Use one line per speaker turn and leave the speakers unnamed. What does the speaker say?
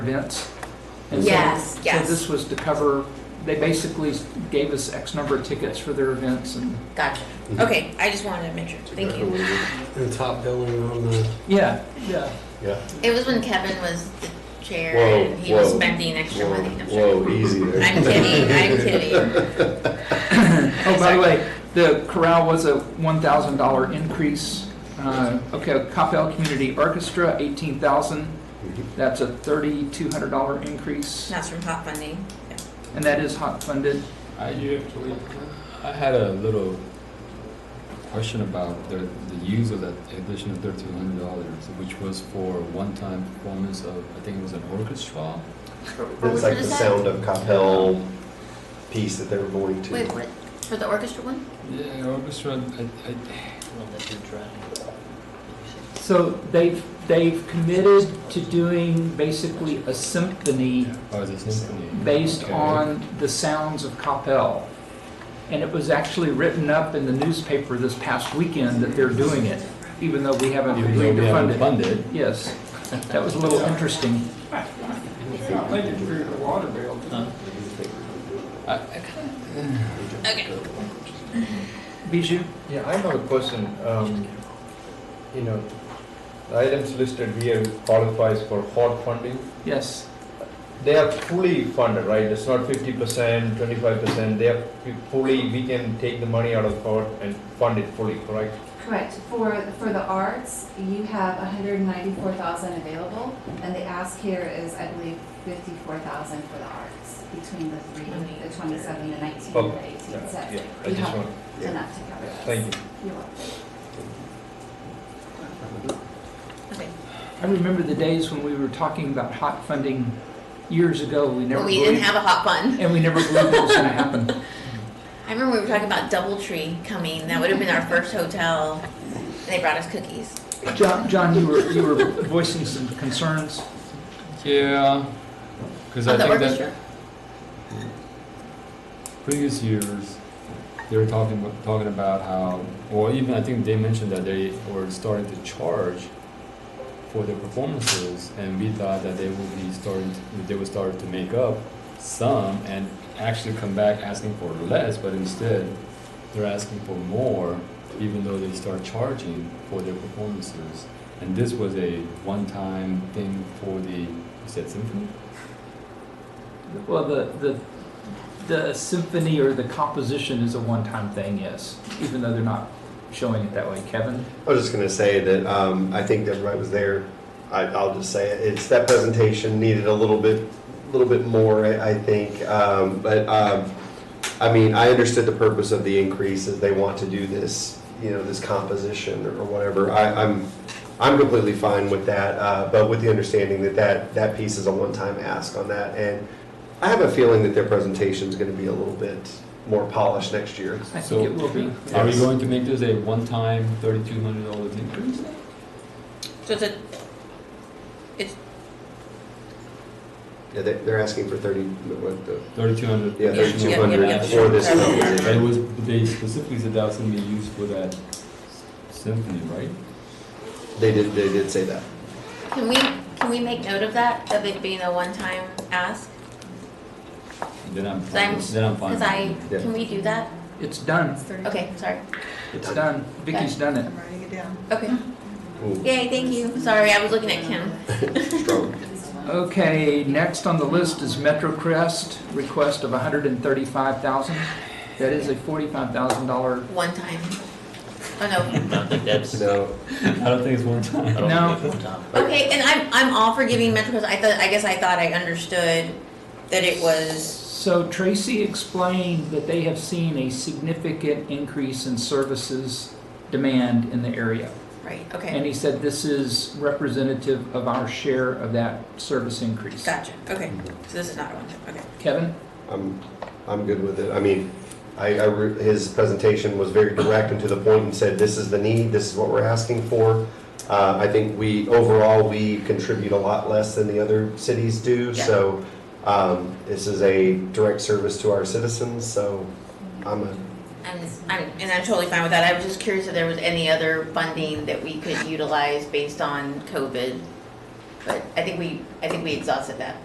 events. And so-
Yes, yes.
So this was to cover, they basically gave us X number of tickets for their events and,
Gotcha.
Mm-hmm.
Okay, I just wanted to make sure. Thank you.
The top billing on the,
yeah, yeah.
Yeah.
It was when Kevin was the chair
Whoa,
and he was
whoa,
spending extra
Whoa,
money. I'm sorry.
whoa, easy there.
I'm kidding. I'm kidding.
Oh, by the way, the corral was a $1,000 increase. Uh, Okay, Capel Community Orchestra, 18,000. That's a $3,200 increase,
That's from hot funding. Yeah.
and that is hot funded.
I, I had a little question about the, the use of that additional thirteen hundred dollars, which was for one-time performance of, I think it was an orchestra.
What
It's
was
like
it
the
that?
sound of Capel piece that they were going to.
Wait, what? For the orchestra one?
Yeah, orchestra, I, I,
So they've, they've committed to doing basically a symphony
oh, it's a symphony.
based
Okay.
on the sounds of Capel. And it was actually written up in the newspaper this past weekend that they're doing it, even though we haven't
Even though
agreed to
we haven't
fund it.
funded,
Yes, that was a little interesting.
I, I kinda,
Okay.
Bijou?
Yeah, I have a question. Um, You know, the items listed here qualifies for hot funding.
Yes,
They are fully funded, right? It's not fifty percent, twenty-five percent. They are fu- fully, we can take the money out of hot and fund it fully, correct?
Correct. For, for the arts, you have 194,000 available, and the ask here is, I believe, 54,000 for the arts, between the three, the 27, the 19,
Oh,
and the 18.
Yeah,
So
I
you
just
have
want,
enough to cover this.
thank you.
You're welcome.
Okay.
I remember the days when we were talking about hot funding years ago, we never
Well, we didn't
believed,
have a hot fund.
and we never believed it was gonna happen.
I remember we were talking about DoubleTree coming. That would have been our first hotel. And they brought us cookies.
John, John, you were, you were voicing some concerns.
yeah, cause I
On the
think that
orchestra?
previous years, they were talking, talking about how, or even I think they mentioned that they were starting to charge for their performances, and we thought that they would be starting, to- they would start to make up some and actually come back asking for less, but instead, they're asking for more, even though they start charging for their performances. And this was a one-time thing for the, you said symphony?
Well, the, the, the symphony or the composition is a one-time thing, yes, even though they're not showing it that way. Kevin?
I was just going to say that um, I think everybody was there. I, I'll just say it. It's that presentation needed a little bit, little bit more, I, I think. Um, but um, I mean, I understood the purpose of the increase is they want to do this, you know, this composition or whatever. I, I'm, I'm completely fine with that, uh, but with the understanding that that, that piece is a one-time ask on that. And I have a feeling that their presentation is going to be a little bit more polished next year.
I
So-
think it will be.
Are we
Yes.
going to make this a one-time thirty-two hundred dollars increase?
So it's a, it's,
Yeah, they, they're asking for thirty, what the,
Thirty-two hundred.
Yeah, thirty-two
Yeah,
hundred
yeah,
for this
yeah.
But it
company.
was, they specifically said that was gonna be used for that symphony, right?
They did, they did say that.
can we, can we make note of that, of it being a one-time ask?
Then I'm,
Cause I'm,
fine. then I'm fine.
cause I,
Yeah.
can we do that?
It's done.
Okay, sorry.
It's done. Vicky's done it.
Okay.
Ooh,
Yay, thank you. Sorry, I was looking at Kim.
strong.
Okay, next on the list is Metro Crest, request of 135,000. That is a $45,000.
One time. Oh
I don't think that's, I
No,
I don't think it's one time.
don't
No.
think it's one time.
no. Okay, and I'm, I'm all for giving MetroCards. I thought, I guess I thought I understood that it was,
So Tracy explained that they have seen a significant increase in services demand in the area.
right,
And
okay.
he said this is representative of our share of that service increase.
Gotcha, okay. So this is not a one time, okay.
Kevin?
I'm, I'm good with it. I mean, I, I, re- his presentation was very direct and to the point and said, this is the need, this is what we're asking for. Uh, I think we, overall, we contribute a lot less than the other cities do,
Yeah.
so, um, this is a direct service to our citizens, so I'm a,
And I'm, and I'm totally fine with that. I was just curious if there was any other funding that we could utilize based on COVID But I think we, I think we exhausted that.